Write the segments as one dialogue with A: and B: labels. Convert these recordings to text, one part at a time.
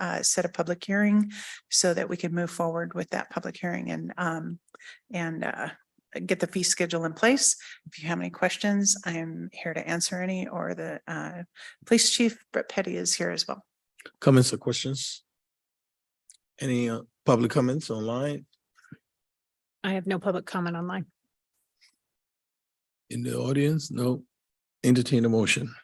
A: uh, set a public hearing so that we can move forward with that public hearing and, um, and, uh, get the fee schedule in place. If you have any questions, I am here to answer any, or the, uh, police chief, Brett Petty is here as well.
B: Comments or questions? Any uh, public comments online,
C: I have no public comment online.
B: in the audience? No. Entertain a motion.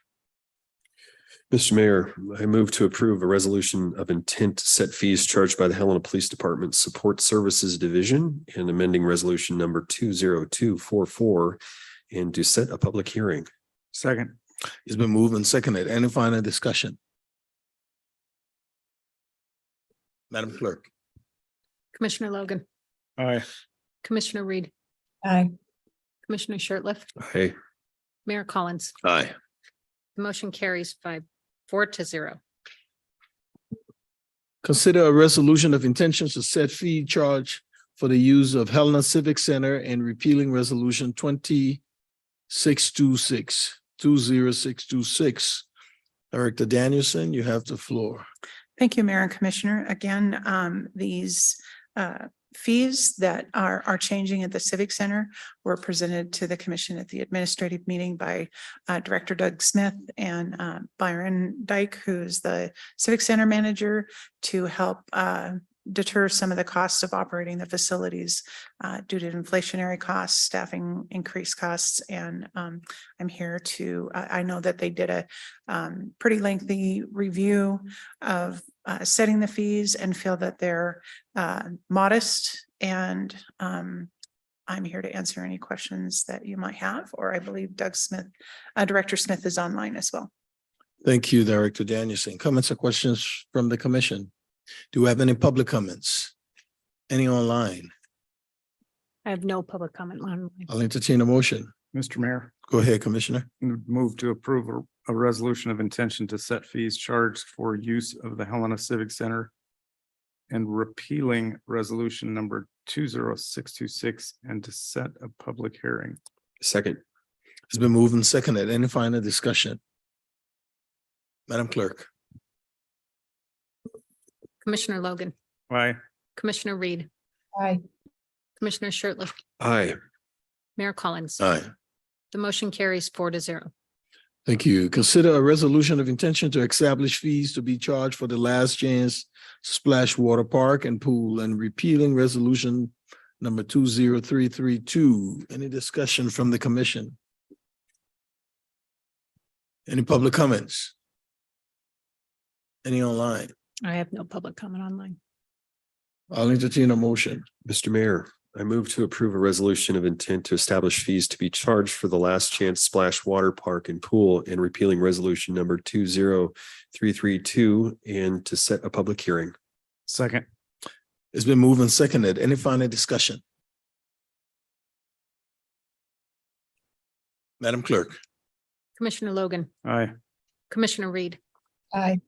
D: Mr. Mayor, I move to approve a resolution of intent to set fees charged by the Helena Police Department Support Services Division and amending resolution number two zero two four four and to set a public hearing.
E: Second.
B: It's been moved and seconded. Any final discussion? Madam Clerk.
C: Commissioner Logan,
E: Aye.
C: Commissioner Reed,
A: Aye.
C: Commissioner Shertliff,
D: Aye.
C: Mayor Collins.
D: Aye.
C: The Motion carries five, four to zero.
B: Consider a resolution of intentions to set fee charge for the use of Helena Civic Center and repealing resolution twenty six two six two zero six two six. Director Danielson, you have the floor.
A: Thank you, Mayor and Commissioner. Again, um, these uh, fees that are, are changing at the Civic Center were presented to the commission at the administrative meeting by uh, Director Doug Smith and uh, Byron Dyke, who's the Civic Center manager, to help uh, deter some of the costs of operating the facilities uh, due to inflationary costs, staffing increased costs, and um, I'm here to, I, I know that they did a um, pretty lengthy review of uh, setting the fees and feel that they're uh, modest. And um, I'm here to answer any questions that you might have, or I believe Doug Smith, uh, Director Smith is online as well.
B: Thank you, Director Danielson. Comments or questions from the commission? Do we have any public comments? Any online?
C: I have no public comment online.
B: I'll entertain a motion.
E: Mr. Mayor,
B: Go ahead, Commissioner.
E: move to approve a, a resolution of intention to set fees charged for use of the Helena Civic Center and repealing resolution number two zero six two six and to set a public hearing.
D: Second.
B: It's been moved and seconded. Any final discussion? Madam Clerk.
C: Commissioner Logan,
E: Aye.
C: Commissioner Reed.
A: Aye.
C: Commissioner Shertliff,
D: Aye.
C: Mayor Collins.
B: Aye.
C: The motion carries four to zero.
B: Thank you. Consider a resolution of intention to establish fees to be charged for the last chance splash water park and pool and repealing resolution number two zero three three two. Any discussion from the commission? Any public comments? Any online?
C: I have no public comment online.
B: I'll entertain a motion.
D: Mr. Mayor, I move to approve a resolution of intent to establish fees to be charged for the Last Chance Splash Water Park and Pool and repealing resolution number two zero three three two and to set a public hearing.
E: Second.
B: It's been moved and seconded. Any final discussion? Madam Clerk.
C: Commissioner Logan,
E: Aye.
C: Commissioner Reed.
A: Aye.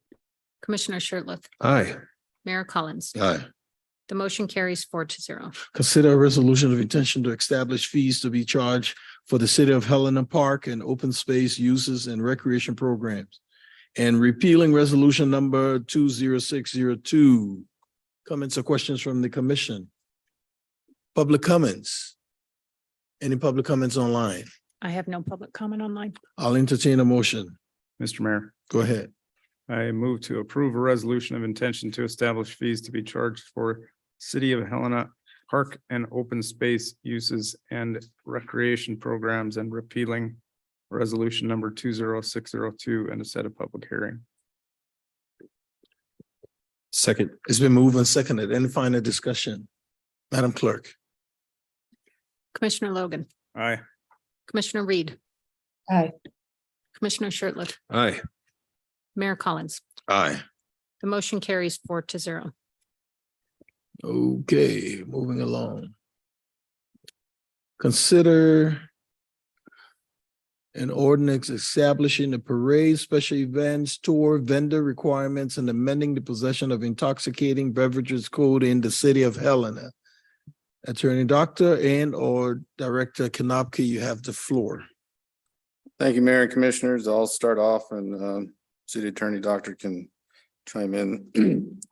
C: Commissioner Shertliff,
D: Aye.
C: Mayor Collins.
B: Aye.
C: The motion carries four to zero.
B: Consider a resolution of intention to establish fees to be charged for the city of Helena Park and open space uses and recreation programs. And repealing resolution number two zero six zero two. Comments or questions from the commission? Public comments? Any public comments online?
C: I have no public comment online.
B: I'll entertain a motion.
E: Mr. Mayor,
B: Go ahead.
E: I move to approve a resolution of intention to establish fees to be charged for City of Helena Park and Open Space Uses and Recreation Programs and repealing resolution number two zero six zero two and to set a public hearing.
D: Second.
B: It's been moved and seconded. Any final discussion? Madam Clerk.
C: Commissioner Logan,
E: Aye.
C: Commissioner Reed.
A: Aye.
C: Commissioner Shertliff,
D: Aye.
C: Mayor Collins.
B: Aye.
C: The motion carries four to zero.
B: Okay, moving along. Consider an ordinance establishing the parade, special events, tour, vendor requirements, and amending the possession of intoxicating beverages code in the city of Helena. Attorney Doctor and or Director Kanopka, you have the floor.
F: Thank you, Mayor and Commissioners. I'll start off and um, City Attorney Doctor can chime in.